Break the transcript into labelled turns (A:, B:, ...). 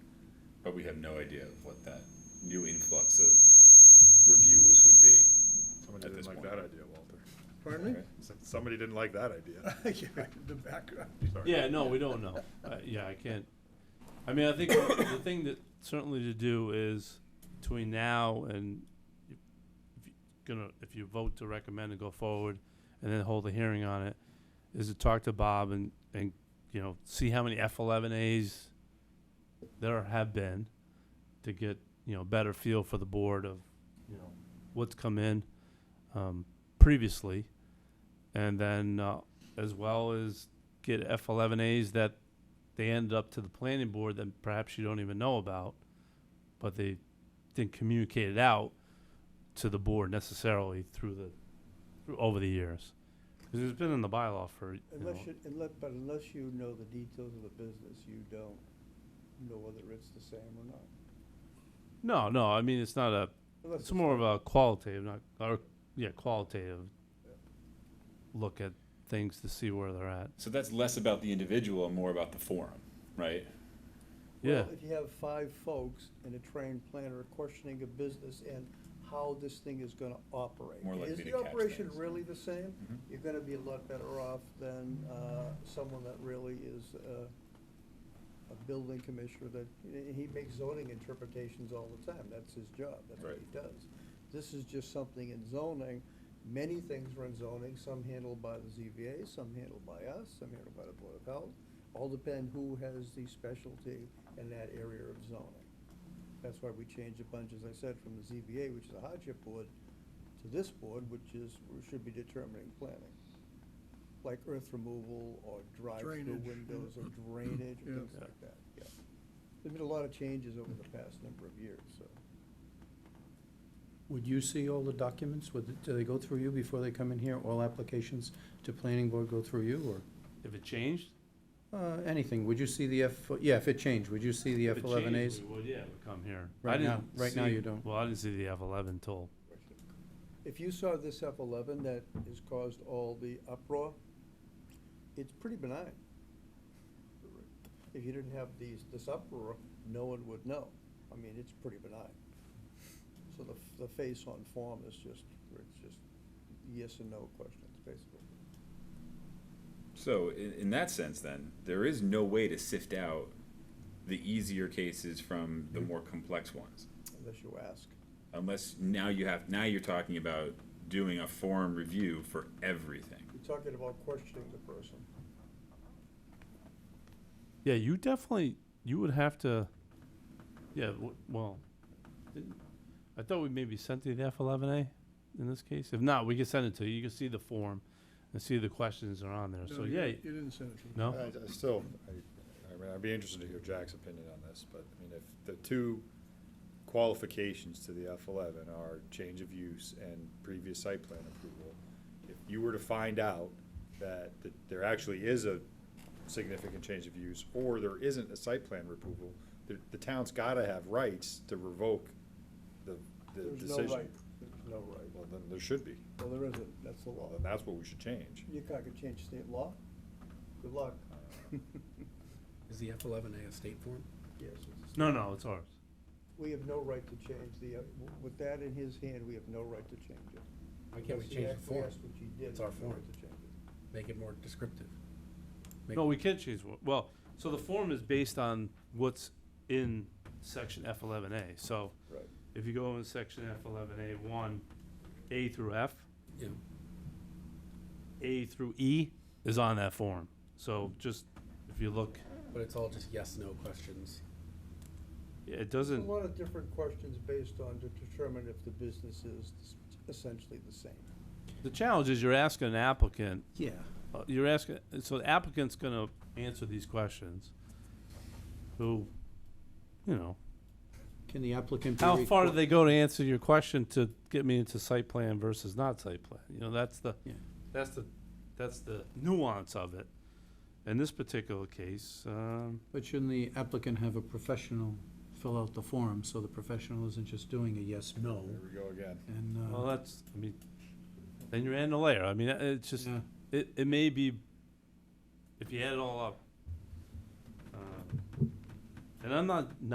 A: but we have no idea of what that new influx of reviews would be.
B: Somebody
A: At
B: didn't
A: this
B: like
A: point.
B: that idea, Walter.
C: Pardon
A: Okay.
B: So- Somebody didn't like that idea.
C: me? Yeah, The background.
B: Sorry.
D: Yeah, no, we don't know. Uh, yeah, I can't. I mean, I think the thing that certainly to do is between now and if you gonna if you vote to recommend and go forward, and then hold a hearing on it, is to talk to Bob and and you know see how many F eleven As there have been to get you know better feel for the board of you know what's come in um, previously, and then uh, as well as get F11As that they ended up to the planning board that perhaps you don't even know about, but they didn't communicate it out to the board necessarily through the, through, over the years. Because it's been in the bylaw for, you know,
C: Unless you, unless, but unless you know the details of the business, you don't know whether it's the same or not.
D: no, no, I mean, it's not a,
C: Unless
D: it's more of a qualitative, not, or, yeah, qualitative look at things to see where they're at.
A: So that's less about the individual and more about the forum, right?
D: Yeah,
C: Well, if you have five folks and a trained planner questioning a business and how this thing is gonna operate.
A: More likely to
C: Is
A: catch
C: the operation
A: things.
C: really the same?
A: Mhm.
C: You're gonna be a lot better off than, uh, someone that really is, uh, a building commissioner that, he- he makes zoning interpretations all the time, that's his job, that's what
A: Right.
C: he does. This is just something in zoning, many things are in zoning, some handled by the ZBA, some handled by us, some handled by the Board of Health. All depend who has the specialty in that area of zoning. That's why we changed a bunch, as I said, from the ZBA, which is a hardship board, to this board, which is, should be determining planning. Like earth removal or drive-through
E: Drainage, yeah.
C: windows or drainage,
E: Yeah.
C: things like that, yeah. There've been a lot of changes over the past number of years, so.
E: Would you see all the documents? Would, do they go through you before they come in here? All applications to planning board go through you
D: if it changed,
E: or, uh, anything? Would you see the F, yeah, if it changed, would you see the
D: If
E: F
D: it
E: eleven
D: changed,
E: As?
D: We would, yeah, it would come here. I
E: Right now-
D: didn't
E: right now
D: see-
E: you don't.
D: Well, I didn't see the F eleven till,
C: If you saw this F eleven that has caused all the uproar, it's pretty benign. If you didn't have these, this uproar, no one would know. I mean, it's pretty benign. So the, f- the face on form is just, it's just yes and no questions, basically.
A: So in, in that sense, then there is no way to sift out the easier cases from the more complex ones,
C: Unless you ask.
A: unless now you have now you're talking about doing a forum review for everything.
C: You're talking about questioning the person.
D: yeah, you definitely, you would have to, yeah, w- well, didn't- I thought we maybe sent you the F eleven A in this case. If not, we can send it to you. You can see the form and see the questions that are on there. So, yeah,
E: You didn't send it
D: no?
B: I, I still, I, I mean, I'd be interested to hear Jack's opinion on this, but I mean, if the two qualifications to the F eleven are change of use and previous site plan approval, if you were to find out that, that there actually is a significant change of use, or there isn't a site plan approval, the, the town's gotta have rights to revoke the, the
C: There's no
B: decision.
C: right. There's no right.
B: Well, then there should be.
C: Well, there isn't, that's the law.
B: Well, then that's what we should change.
C: You can't change state law. Good luck.
E: Is the F eleven A a state form?
C: Yes.
D: No, no, it's ours.
C: We have no right to change the, uh, with that in his hand, we have no right to change it.
F: Why can't we
C: Unless he
F: change the form?
C: acquiesced, Which he did.
F: It's our
C: we have no
F: form.
C: right to change it.
F: Make it more descriptive. Make-
D: No, we can change, wha- well, so the form is based on what's in section F eleven A. So
C: Right.
D: if you go in section F eleven A one, A through F,
F: Yeah,
D: A through E is on that form. So just, if you look,
F: but it's all just yes, no questions.
D: it
C: A
D: doesn't,
C: lot of different questions based on to determine if the business is s- essentially the same.
D: the challenge is you're asking an applicant,
E: Yeah.
D: uh, you're asking, so the applicant's gonna answer these questions. Who, you know,
E: Can the applicant be?
D: how far do
E: requi-
D: they go to answer your question to get me into site plan versus not site plan? You know, that's the,
E: Yeah.
D: that's the, that's the nuance of it. In this particular case, um,
E: But shouldn't the applicant have a professional fill out the form, so the professional isn't just doing a yes, no,
B: There we go again.
E: and, uh.
D: Well, that's, I mean, then you're adding a layer. I mean, uh, it's just,
E: Yeah.
D: it, it may be, if you add it all up. uh, And I'm not